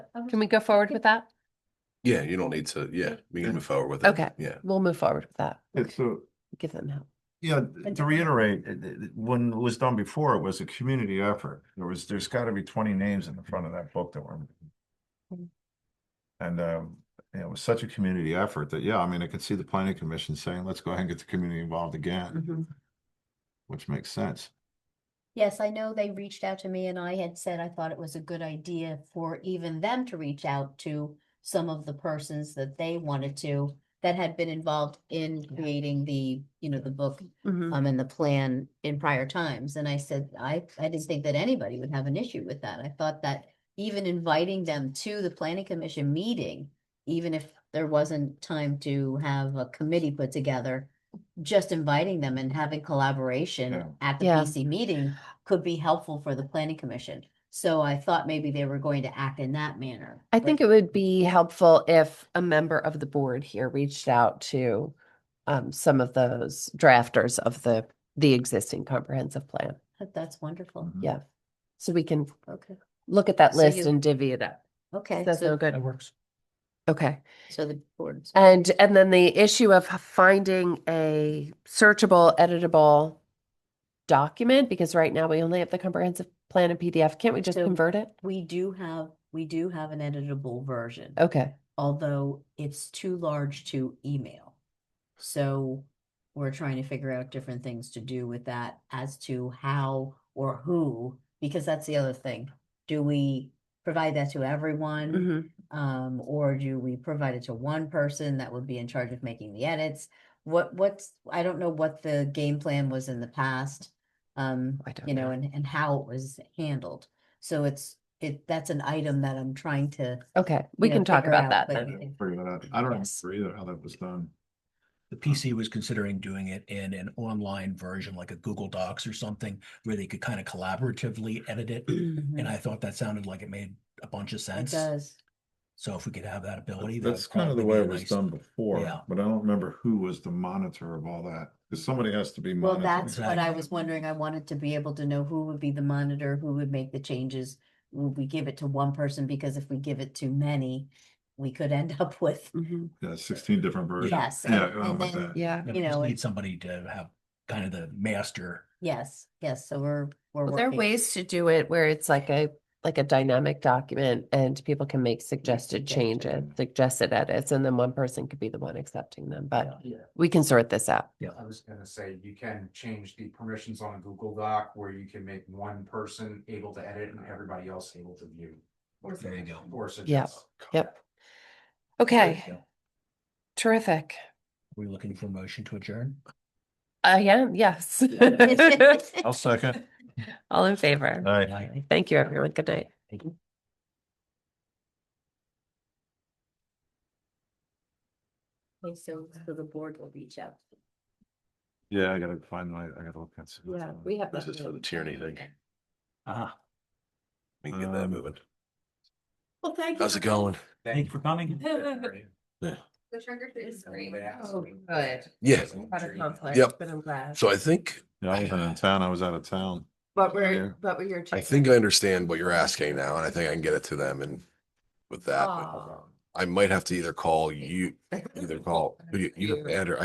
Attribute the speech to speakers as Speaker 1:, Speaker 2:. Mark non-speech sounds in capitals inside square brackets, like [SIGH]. Speaker 1: Can we go forward with that?
Speaker 2: Yeah, you don't need to, yeah, we
Speaker 3: Yeah.
Speaker 2: can move forward with it.
Speaker 1: Okay.
Speaker 2: Yeah,
Speaker 1: We'll move forward with that.
Speaker 3: It's a,
Speaker 1: Give them help.
Speaker 3: yeah, th- to reiterate, it- it- it- when it was done before, it was a community effort. There was, there's gotta be twenty names in the front of that book that were.
Speaker 4: Mm-hmm.
Speaker 1: Mm.
Speaker 3: And, um, you know, it was such a community effort that, yeah, I mean, I could see the planning commission saying, let's go ahead and get the community involved
Speaker 4: Mm-hmm.
Speaker 3: again, which makes sense.
Speaker 4: Yes, I know they reached out to me and I had said I thought it was a good idea for even them to reach out to some of the persons that they wanted to, that had been involved in
Speaker 1: Yeah.
Speaker 4: creating the, you know, the book
Speaker 1: Mhm.
Speaker 4: um, and the plan in prior times. And I said, I, I didn't think that anybody would have an issue with that. I thought that even inviting them to the planning commission meeting, even if there wasn't time to have a committee put together, just inviting them and having
Speaker 3: Yeah.
Speaker 4: collaboration at the
Speaker 1: Yeah.
Speaker 4: PC meeting could be helpful for the planning commission. So I thought maybe they were going to act in that manner.
Speaker 1: I think it would be helpful if a member of the board here reached out to um, some of those drafters of the, the existing comprehensive plan.
Speaker 4: But That's wonderful.
Speaker 3: Mhm.
Speaker 1: Yeah. So we can
Speaker 4: Okay,
Speaker 1: look at that
Speaker 4: So
Speaker 1: list
Speaker 4: you-
Speaker 1: and divvy it up.
Speaker 4: okay.
Speaker 1: That's no
Speaker 4: So,
Speaker 1: good.
Speaker 5: works.
Speaker 1: Okay.
Speaker 4: so the board.
Speaker 1: And, and then the issue of h- finding a searchable, editable document, because right now we only have the comprehensive plan in PDF. Can't we just
Speaker 4: So-
Speaker 1: convert it?
Speaker 4: We do have, we do have an editable version.
Speaker 1: Okay.
Speaker 4: although it's too large to email. So we're trying to figure out different things to do with that as to how or who, because that's the other thing. Do we provide that to everyone?
Speaker 1: Mhm.
Speaker 4: Um, or do we provide it to one person that would be in charge of making the edits? What, what's, I don't know what the game plan was in the past. Um,
Speaker 1: I don't
Speaker 4: you know,
Speaker 1: know.
Speaker 4: and, and how it was handled. So it's, it, that's an item that I'm trying to
Speaker 1: Okay. We
Speaker 4: know,
Speaker 1: can talk
Speaker 4: figure
Speaker 1: about
Speaker 4: out,
Speaker 1: that
Speaker 4: but-
Speaker 3: I
Speaker 1: then.
Speaker 3: don't figure that out. I don't
Speaker 4: Yes.
Speaker 3: remember either how that was done.
Speaker 5: The PC was considering doing it in an online version, like a Google Docs or something, where they could kind of collaboratively edit it.
Speaker 3: Mm.
Speaker 5: And I thought that sounded like it made a bunch of
Speaker 4: Mm-hmm. It
Speaker 5: sense.
Speaker 4: does.
Speaker 5: So if we could have that ability. that would
Speaker 3: That's kind of the
Speaker 5: probably
Speaker 3: way
Speaker 5: be
Speaker 3: it
Speaker 5: a
Speaker 3: was
Speaker 5: nice-
Speaker 3: done before,
Speaker 5: Yeah.
Speaker 3: but I don't remember who was the monitor of all that. Because somebody has to be
Speaker 4: Well,
Speaker 3: monitoring.
Speaker 4: that's what I
Speaker 5: Exactly.
Speaker 4: was wondering. I wanted to be able to know who would be the monitor, who would make the changes. Would we give it to one person? Because if we give it to many, we could end up [LAUGHS] with,
Speaker 1: Mhm.
Speaker 3: Yeah, sixteen different versions.
Speaker 4: yes.
Speaker 3: Yeah, oh,
Speaker 4: and-
Speaker 3: I
Speaker 4: and
Speaker 3: remember
Speaker 4: then-
Speaker 3: that.
Speaker 1: Yeah.
Speaker 4: you
Speaker 5: Yeah, we just
Speaker 4: know,
Speaker 5: Need
Speaker 4: it's-
Speaker 5: somebody to have kind of the master.
Speaker 4: Yes, yes, so we're, we're
Speaker 1: Well, There are
Speaker 4: working. [LAUGHS]
Speaker 1: ways [LAUGHS] to do it where it's like a, like a dynamic document and people can make suggested
Speaker 4: suggestions.
Speaker 1: changes, suggested edits, and then one person could be the one accepting them, but
Speaker 6: Yeah,
Speaker 1: we can sort this out.
Speaker 6: I was gonna say, you can change the permissions on a Google Doc where you can make one person able to edit and everybody else able to view.
Speaker 5: There you go.
Speaker 6: Or suggest.
Speaker 1: Yep.
Speaker 5: There you
Speaker 1: Okay,
Speaker 5: go.
Speaker 1: terrific.
Speaker 5: We're looking for a motion to adjourn.
Speaker 1: I am, Uh, yes.
Speaker 3: I'll second.
Speaker 1: All in favor?
Speaker 2: Uh,
Speaker 3: Aye.
Speaker 5: Aye.
Speaker 1: Thank you, everyone. Good night.
Speaker 5: Thank you.
Speaker 4: Okay, So, so the board will reach out.
Speaker 3: Yeah, I gotta find my, I gotta look at. some-
Speaker 1: have.
Speaker 2: this is for the tyranny thing.
Speaker 5: Ah,
Speaker 2: We can get that
Speaker 3: Um,
Speaker 2: moving.
Speaker 7: Well, thank you.
Speaker 2: How's it going?
Speaker 5: thank you for coming.
Speaker 1: [LAUGHS]
Speaker 7: The trigger food is
Speaker 1: Oh,
Speaker 7: great.
Speaker 1: Good.
Speaker 2: Yeah,
Speaker 1: Had a conflict,
Speaker 2: Yep.
Speaker 1: but I'm glad.
Speaker 2: so I think,
Speaker 3: Yeah, I wasn't in town, I was out of town.
Speaker 1: But
Speaker 3: Yeah.
Speaker 1: we're, but we're your.
Speaker 2: I think I understand what you're asking now, and I think I can get it to them and with that. but I might have to either call you, either call, you, you, Andrew,